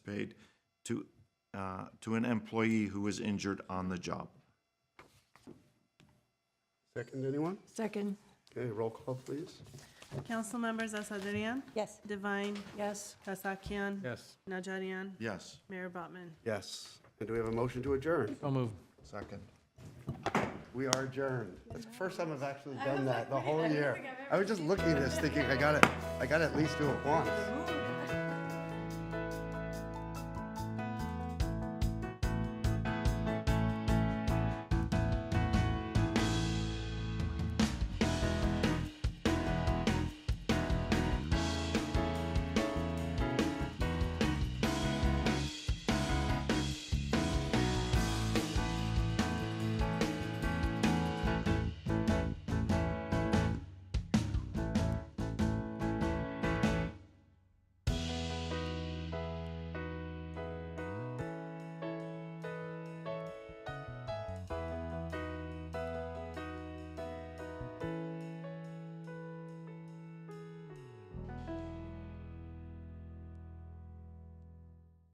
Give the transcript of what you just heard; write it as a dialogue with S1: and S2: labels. S1: paid to, uh, to an employee who was injured on the job.
S2: Second, anyone?
S3: Second,
S2: Okay, roll call, please.
S4: Council members Asadrian?
S3: Yes.
S4: Divine?
S3: yes.
S4: Kasakian?
S5: Yes.
S4: Najarian?
S1: Yes.
S4: Mayor Botman?
S2: Yes. And do we have a motion to adjourn?
S5: So moved.
S1: Second.
S2: We are adjourned. That's the first time I've actually done that the whole year. I was just looking at this thinking, I got it, I got to at least do it once.